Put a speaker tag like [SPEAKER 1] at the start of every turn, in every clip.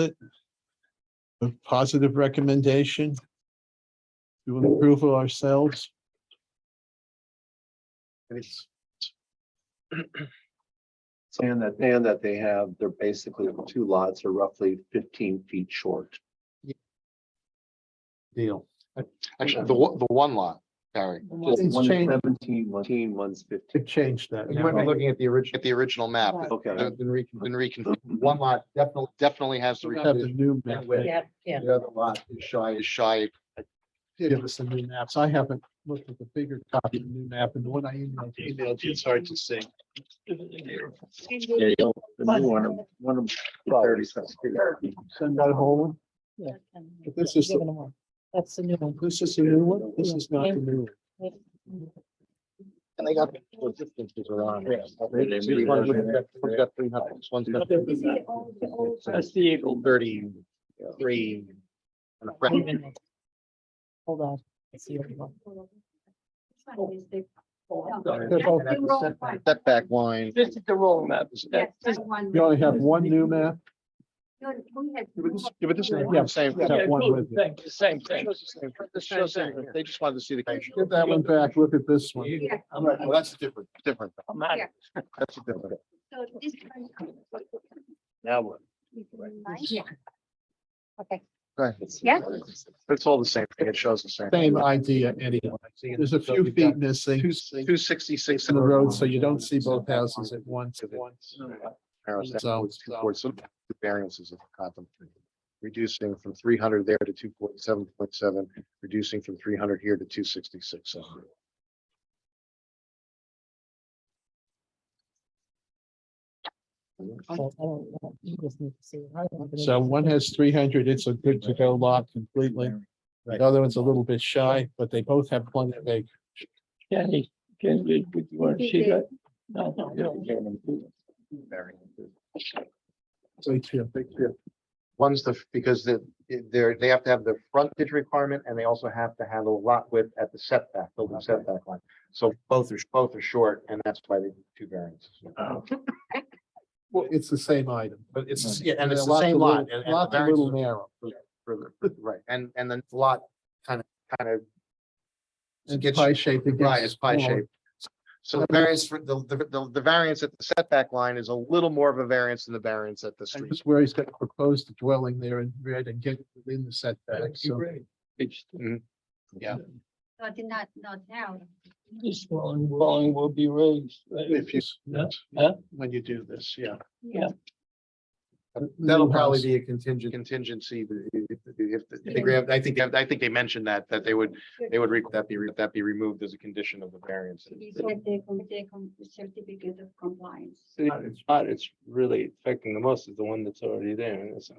[SPEAKER 1] it? A positive recommendation? Do an approval ourselves?
[SPEAKER 2] And it's And that, and that they have, they're basically, the two lots are roughly fifteen feet short.
[SPEAKER 3] deal. Actually, the one, the one lot, Harry,
[SPEAKER 2] Just
[SPEAKER 1] It's
[SPEAKER 2] one's
[SPEAKER 1] changed.
[SPEAKER 2] 17, one's 18, one's fifteen.
[SPEAKER 1] To change that.
[SPEAKER 3] you might be looking at the original, at the original map,
[SPEAKER 4] Right.
[SPEAKER 2] Okay.
[SPEAKER 3] it's been recon, been reconfigured, Uh, one lot definitely, definitely has to
[SPEAKER 1] Have the
[SPEAKER 3] reconfigured.
[SPEAKER 1] new
[SPEAKER 3] That
[SPEAKER 1] map.
[SPEAKER 3] way.
[SPEAKER 4] Yeah, yeah.
[SPEAKER 3] The other lot is shy, is shy,
[SPEAKER 1] Give us the new maps. I haven't looked at the bigger copy of the new map and the one I emailed. Emailed, it's hard to see.
[SPEAKER 2] There you go. The new one, one of them, thirty six feet.
[SPEAKER 1] Send that whole But this is the-
[SPEAKER 4] Given them all. That's the new
[SPEAKER 1] one.
[SPEAKER 4] one.
[SPEAKER 1] This is the new one. This is not the new
[SPEAKER 3] and they got. the distances around it. This one's got- this one's got 300, this one's got
[SPEAKER 5] That's the Eagle.
[SPEAKER 3] 33, and a fraction.
[SPEAKER 4] Hold on. It's the old one.
[SPEAKER 5] This
[SPEAKER 3] Setback line,
[SPEAKER 5] is the roll map. This-
[SPEAKER 1] one. You only have one new map?
[SPEAKER 3] yeah, but this is
[SPEAKER 1] Yeah.
[SPEAKER 3] the same.
[SPEAKER 1] Yeah.
[SPEAKER 5] Yeah,
[SPEAKER 1] Got one
[SPEAKER 5] cool,
[SPEAKER 1] with you.
[SPEAKER 5] Thing, the same thing.
[SPEAKER 3] It shows that They just wanted to see the.
[SPEAKER 1] Get that one back. Look at this one.
[SPEAKER 3] All right, well, that's different, different,
[SPEAKER 5] I'm out.
[SPEAKER 3] that's a different.
[SPEAKER 2] Now what?
[SPEAKER 4] Yeah. Okay.
[SPEAKER 3] Go ahead.
[SPEAKER 4] Yeah.
[SPEAKER 3] It's all the same thing, it shows the same.
[SPEAKER 1] Same idea anyway. There's a few feet missing
[SPEAKER 3] Two, two sixty-six
[SPEAKER 1] in the road, so you don't see both houses at once.
[SPEAKER 3] So, so the variances of contemplated. Reducing from three hundred there to two point seven point seven, reducing from three hundred here to two sixty-six.
[SPEAKER 4] I don't- I don't know. You just need to see it. I don't
[SPEAKER 1] So
[SPEAKER 4] know.
[SPEAKER 1] one has three hundred, it's a good to go lot completely. The other one's a little bit shy, but they both have plenty of acre.
[SPEAKER 5] Kenny, Kenny, would you want to see that? No, no, no.
[SPEAKER 1] So it's a big deal.
[SPEAKER 3] One's the, because the, they're, they have to have the frontage requirement and they also have to have a lot width at the setback, building setback line. So both are, both are short and that's why they do two variances.
[SPEAKER 1] Well, it's the same item.
[SPEAKER 3] But it's, yeah, and
[SPEAKER 1] the
[SPEAKER 3] it's the same lot. and- and the
[SPEAKER 1] Lot a
[SPEAKER 3] variance
[SPEAKER 1] little
[SPEAKER 3] is
[SPEAKER 1] narrow.
[SPEAKER 3] further, Right, and, and then the lot kind of, kind of
[SPEAKER 1] And
[SPEAKER 3] Gets-
[SPEAKER 1] pie shaped. it
[SPEAKER 3] Right,
[SPEAKER 1] gets
[SPEAKER 3] it's pie
[SPEAKER 1] smaller.
[SPEAKER 3] shaped. So the variance for the, the- the, the variance at the setback line is a little more of a variance than the variance at the
[SPEAKER 1] And
[SPEAKER 3] street.
[SPEAKER 1] just where he's got proposed the dwelling there in red and get within the setback. So
[SPEAKER 5] It's
[SPEAKER 3] Yeah.
[SPEAKER 6] No, did not, not now.
[SPEAKER 5] This one, dwelling will be raised. right?
[SPEAKER 3] If you,
[SPEAKER 5] Yeah. Huh?
[SPEAKER 3] when you do this, yeah.
[SPEAKER 1] That'll
[SPEAKER 3] That'll
[SPEAKER 1] probably
[SPEAKER 3] probably be a contingent. Contingency, if, if, if they grab- I think, I think they mentioned that, that they would, they would, re- that be, re- that be removed as a condition of the variance.
[SPEAKER 6] You get the, com- the com- certificate of compliance.
[SPEAKER 5] It's not, it's really affecting the most is the one that's already there and it's. um,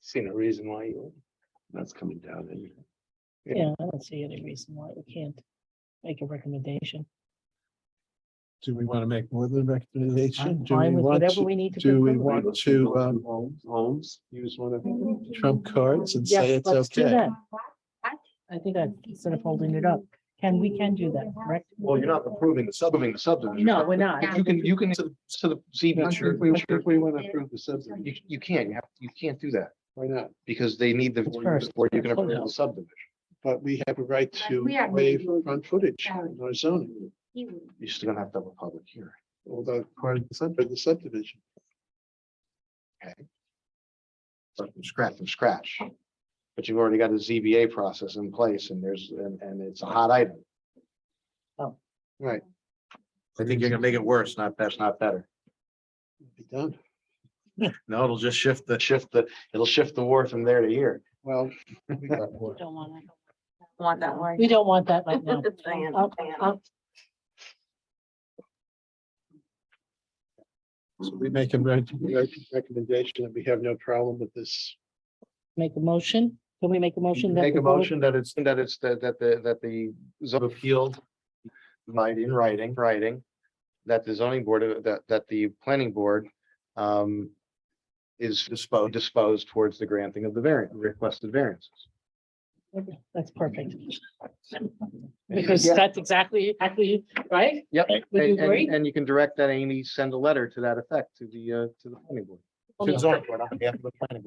[SPEAKER 5] Seen a reason why you.
[SPEAKER 2] That's coming down. anyway.
[SPEAKER 4] Yeah, I don't see any reason why we can't make a recommendation.
[SPEAKER 1] do we want to make more than a recommendation?
[SPEAKER 4] I'm
[SPEAKER 1] Do we
[SPEAKER 4] fine with
[SPEAKER 1] want
[SPEAKER 4] whatever
[SPEAKER 1] to
[SPEAKER 4] we need to.
[SPEAKER 1] do we
[SPEAKER 4] conclude.
[SPEAKER 1] want- One, two, um,
[SPEAKER 2] Homes, homes.
[SPEAKER 1] use one of trump cards and say
[SPEAKER 4] Yes,
[SPEAKER 1] it's
[SPEAKER 4] let's do
[SPEAKER 1] okay?
[SPEAKER 4] that. I think that instead of holding it up, can, we can do that, correct?
[SPEAKER 3] Well, you're not approving the subdivision, the subdivision.
[SPEAKER 4] No, we're not.
[SPEAKER 3] You can, you can, to the, to the
[SPEAKER 1] I think we- I think
[SPEAKER 3] ZBA.
[SPEAKER 1] we want to approve the subdivision.
[SPEAKER 3] You, you can't, you have, you can't do that
[SPEAKER 1] Why not?
[SPEAKER 3] because they need the,
[SPEAKER 4] It's first.
[SPEAKER 3] before you can approve the subdivision.
[SPEAKER 1] But we have a right
[SPEAKER 6] But
[SPEAKER 1] to
[SPEAKER 6] we are
[SPEAKER 1] waive
[SPEAKER 6] making-
[SPEAKER 1] front footage in our zoning,
[SPEAKER 6] He would.
[SPEAKER 3] You're still gonna have to have a public hearing.
[SPEAKER 1] although part of the sub- of the subdivision.
[SPEAKER 3] start from scratch, from scratch. But you've already got a ZBA process in place and there's, and, and it's a hot item.
[SPEAKER 4] Oh.
[SPEAKER 3] Right. I think you're gonna make it worse, not, that's not better.
[SPEAKER 1] It'll Be done.
[SPEAKER 3] No, it'll just shift the, shift the, it'll shift the war from there to here.
[SPEAKER 1] Well, we got more.
[SPEAKER 4] Don't want that.
[SPEAKER 7] Want that one?
[SPEAKER 4] We don't want that right now.
[SPEAKER 7] I
[SPEAKER 4] I'll- I'll-
[SPEAKER 1] So we make a rec- rec- recommendation and we have no problem with this.
[SPEAKER 4] Make a motion. Can we make a motion? that
[SPEAKER 3] Make
[SPEAKER 4] the
[SPEAKER 3] a
[SPEAKER 4] vote-
[SPEAKER 3] motion that it's, that it's, that, that the, that the zone appealed. Might in writing, writing, that the zoning board, uh, that, that the planning board, um. Is disposed, disposed towards the granting of the variant, requested variances.
[SPEAKER 4] Okay, That's perfect. Because that's exactly, exactly, right?
[SPEAKER 3] Yep.
[SPEAKER 4] Would you
[SPEAKER 3] And- and-
[SPEAKER 4] agree?
[SPEAKER 3] And you can direct that Amy, send a letter to that effect to the, uh, to the planning board. It's on, we're not half of the planning board.